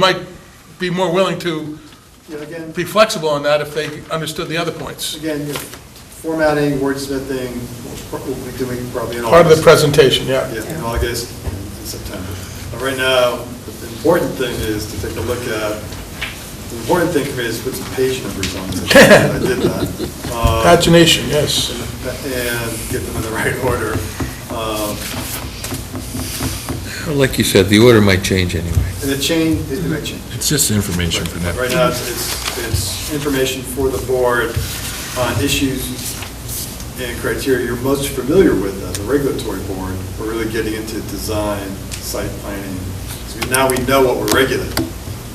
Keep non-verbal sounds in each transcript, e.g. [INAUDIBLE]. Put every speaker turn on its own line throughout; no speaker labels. might be more willing to
You know, again,
be flexible on that if they understood the other points.
again, you know, formatting, wordsmithing, we'll pro- we'll be doing probably in
Part of the
August.
presentation, yeah.
Yeah, in August and September. But right now, the important thing is to take a look at, the important thing for me is put some page numbers
[LAUGHS]
on this. I did that. Uh,
Pagination, yes.
And get them in the right [LAUGHS] order. Um,
Like you said, the order might change anyway.
And the change, it might change.
It's just information for
Right now, it's- it's, it's information for the board on issues and criteria you're most familiar with as a regulatory board. We're really getting into design, site planning. So now we know what we're regulating.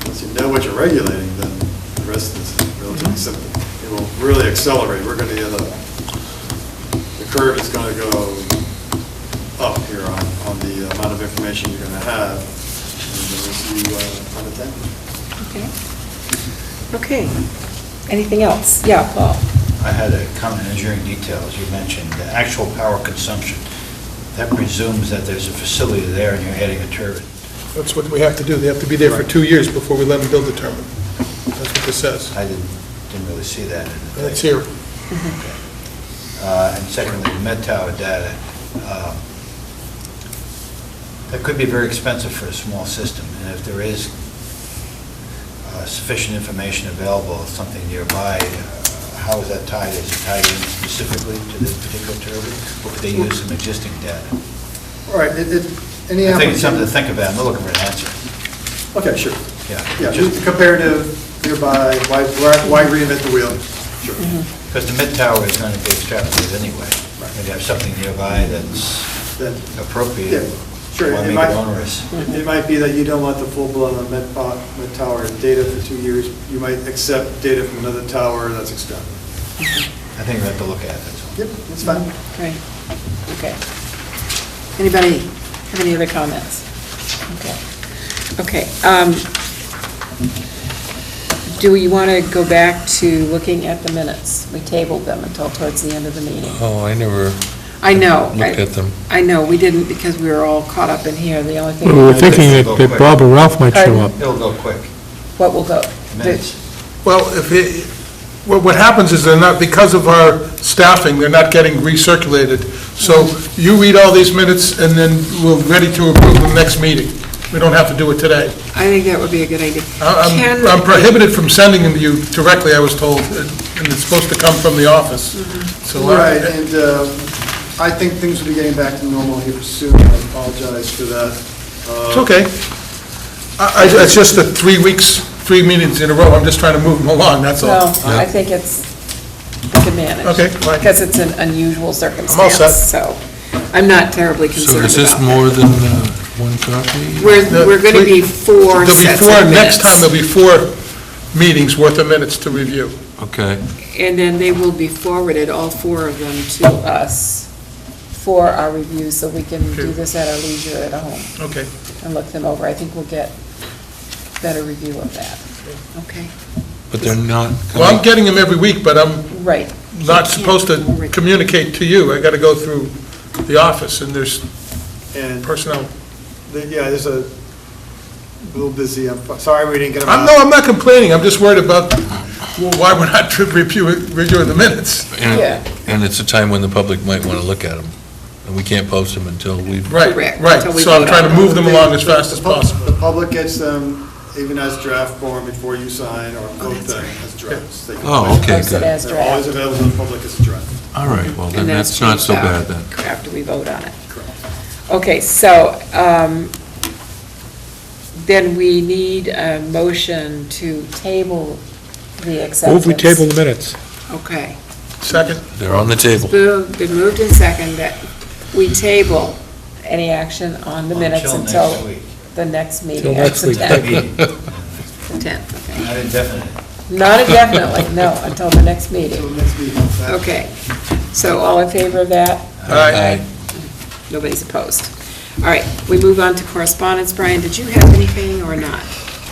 Once you know what you're regulating, then the rest is relatively simple. It will really accelerate. We're going to get a, the curve is going to go up here on, on the amount of information you're going to have. And then we'll see you uh, on the 10th.
Okay. Okay. Anything else? Yeah, Paul.
I had a comment on engineering details, you mentioned the actual power consumption. That presumes that there's a facility there and you're adding a turbine.
That's what we have to do. They have to be there for two years before we let them build the turbine. That's what this says.
I didn't, didn't really see that. in the thing.
And it's here.
Uh, And secondly, the Met Tower data, um, that could be very expensive for a small system, and if there is uh, sufficient information available, something nearby, uh, how is that tied? Is it tied in specifically to this particular turbine, or could they use some existing data?
All right, it, it, any
I think it's something to
application?
think about, I'm not looking for an answer.
Okay, sure. Yeah,
Yeah,
just comparative, nearby, why, why- why reinvent the wheel? Sure.
because the mid tower is going to be extrapolated anyway. Maybe have something nearby that's
Then, yeah,
appropriate.
sure.
Why
It
make
might-
it onerous?
It might be that you don't want the full-blown Met, Po- Met Tower data for two years. You might accept data from another tower that's extended.
I think we have to look at it, that's all.
Yep, it's fine.
Great. Okay. Anybody have any other comments? Okay. Okay. um, Do we want to go back to looking at the minutes? We tabled them until towards the end of the meeting.
Oh, I never
I know.
looked at them.
I know, we didn't because we were all caught up in here. The only thing.
We were thinking
that-
that that Bob or Ralph might show up.
It'll go quick,
What will go?
minutes.
Well, if, it- what what happens is they're not, because of our staffing, they're not getting recirculated. So you read all these minutes, and then we're ready to approve them next meeting. We don't have to do it today.
I think that would be a good idea.
I- Uh, I'm
Can-
I'm prohibited from sending them to you directly, I was told, uh, and it's supposed to come from the office. So, uh,
Right, and uh, I think things will be getting back to normal here soon. I apologize for that. Uh,
it's okay. I- I- It's just the three weeks, three meetings in a row, I'm just trying to move them along, that's all.
No, I think it's, we can manage.
Okay, fine.
Because it's an unusual
set.
circumstance, so I'm not terribly
So
concerned
is this
about it.
more than uh, one copy?
We're, we're going to be four
There'll be
sets
four-
of
Next time, there'll
minutes.
be four meetings worth of minutes to review.
Okay.
And then they will be forwarded, all four of them, to us for our review, so we can do
Okay.
this at our leisure at home
Okay.
and look them over. I think we'll get better review of that. Okay,
But they're not
Well, I'm
coming,
getting them every week, but I'm
right.
not supposed to communicate to you. I got to go through the office, and there's
And,
personnel.
the- yeah, there's a little busy, I'm sorry we didn't get them out.
I'm, no, I'm not complaining, I'm just worried about why we're not reviewing, reviewing the minutes.
Yeah.
and and it's a time when the public might want to look at them, and we can't post them until we've...
Right,
Correct,
right,
until we
so I'm
vote
trying to
on
move them along
The-
as fast as
the pub-
possible.
The public gets them even as draft form before you sign or vote
Oh, that's
them as drafts. They can-
Oh, okay,
Post it
good.
as
They're always
draft.
available to the public as a draft.
All right, well, then
And then
that's
it's
not so
changed
bad
out
then.
After we vote on it. Okay, so um, then we need a motion to table the acceptance.
Move we table the minutes.
Okay.
Second?
They're on the table.
It's moved- Been moved and seconded that we table any action on the minutes
Until next
until
week.
the next meeting.
Till next
That's
week.
the 10th,
Meeting,
the 10th, okay.
Not [LAUGHS] indefinite.
Not indefinitely, no, until the next meeting.
So next meeting, that-
Okay. So all in favor of that?
Aye.
Nobody's opposed. All right, we move on to correspondence. Brian, did you have anything or not?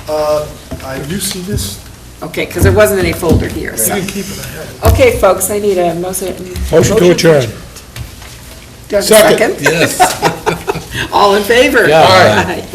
Uh, I
Have you seen this?
Okay, because there wasn't any folder here, so. Okay, folks, I need a motion.
Motion to adjourn.
Do I have a second? [LAUGHS]
Yes.
All in favor?
Yeah.
Aye.